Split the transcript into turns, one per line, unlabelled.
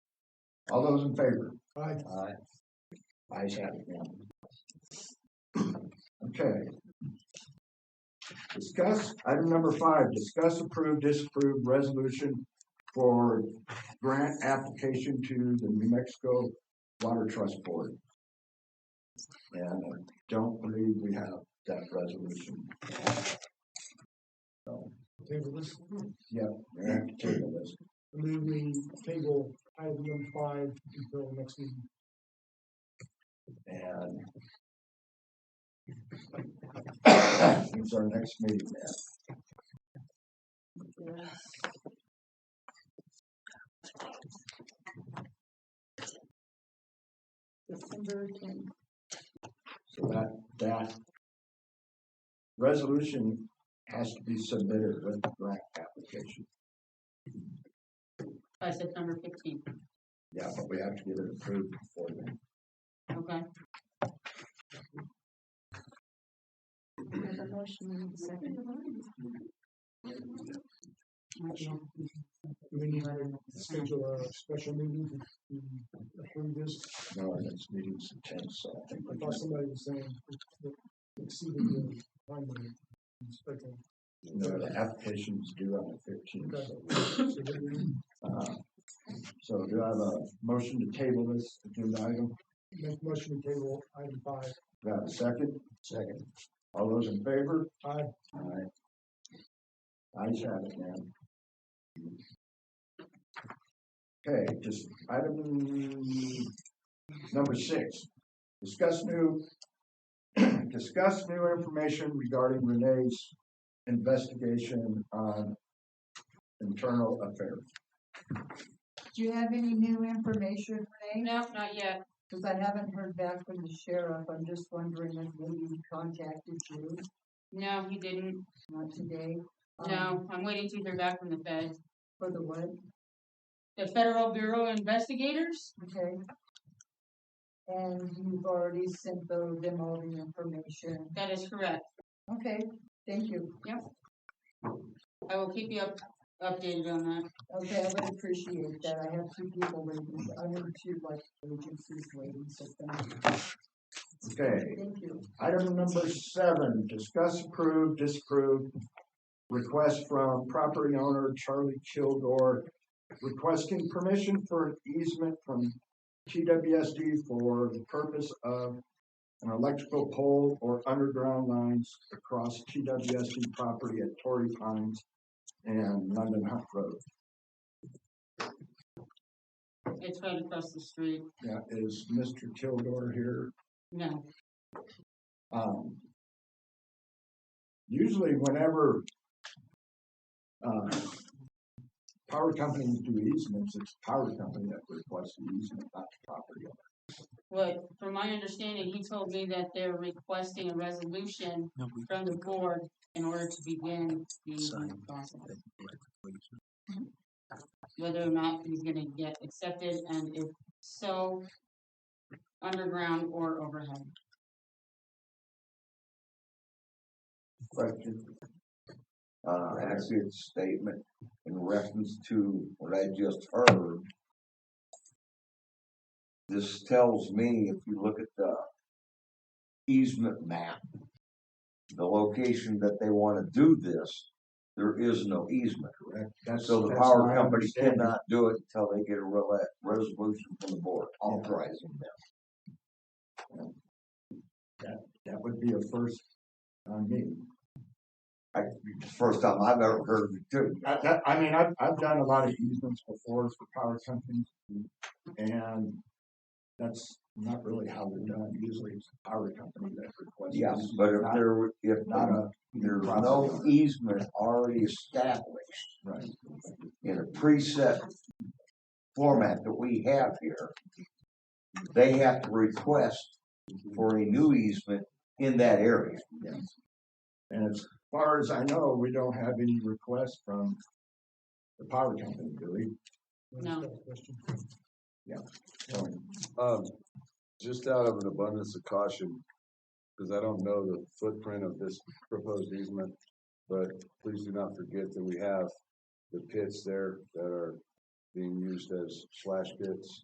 All those in favor?
Aye.
Aye. Ayes have it, ma'am. Okay. Discuss, item number five, discuss approve, disapprove resolution for grant application to the New Mexico Water Trust Board. And I don't believe we have that resolution.
Table this,
We have to table this.
move we table item number five until next meeting.
And it's our next meeting now.
December tenth.
So that, that resolution has to be submitted with the grant application.
by September fifteenth,
Yeah, but we have to get it approved before then.
okay? There's a motion and a second. Motion.
We need to schedule a special meeting to approve this.
No, our next meeting's the tenth, so I think
I
we
thought
just,
somebody was saying that exceeded the timeline. Okay,
you know, the application's due on the fifteenth, so.
so then we
uh, So do I have a motion to table this agenda item?
Make motion to table item five.
Do I have a second? Second. All those in favor?
Aye.
Alright. I just have it, man. Okay, just item number six, discuss new, discuss new information regarding Renee's investigation on internal affairs.
Do you have any new information, Renee?
No, not yet,
Cause I haven't heard back from the sheriff, I'm just wondering if maybe he contacted you,
no, he didn't,
not today. um,
no, I'm waiting to hear back from the Fed.
For the what,
The Federal Bureau of Investigators,
okay? And you've already sent tho- them all the information,
that is correct,
okay, thank you,
I will keep you up, updated on that.
okay, I would appreciate that, I have two people waiting, I have two like agencies waiting, so thank you,
Okay,
thank you.
Item number seven, discuss approve, disapprove, request from property owner Charlie Kilgore requesting permission for an easement from TWSD for the purpose of an electrical pole or underground lines across TWSD property at Torrey Pines and London Hunt Road.
It's right across the street,
Yeah, is Mr. Kilgore here?
no,
Um, usually whenever, uh, power companies do easements, it's the power company that requests the easement, not the property owner.
But from my understanding, he told me that they're requesting a resolution from the board in order to begin the easement process. Mm-hmm. Whether or not he's gonna get accepted, and if so, underground or overhead.
question. Uh, actually, it's a statement in reference to what I just heard. This tells me, if you look at the easement map, the location that they wanna do this, there is no easement.
Correct. That's-
So the
that's
power
my
company
understanding.
cannot do it until they get a rela- resolution from the board authorizing them.
That would be a first, on me.
I, first time I've ever heard of it too.
I, that, I mean, I've, I've done a lot of easements before for power companies, and that's not really how they're done. Usually it's the power company that requests. the
Yes,
easement,
but if
not-
there, were- if
Not a,
There's
Property
no
owner.
easement already established
right.
in a preset format that we have here. They have to request for a new easement in that area.
And as far as I know, we don't have any requests from the power company, do we?
No.
Question.
So,
Um, just out of an abundance of caution, because I don't know the footprint of this proposed easement, but please do not forget that we have the pits there that are being used as slash pits.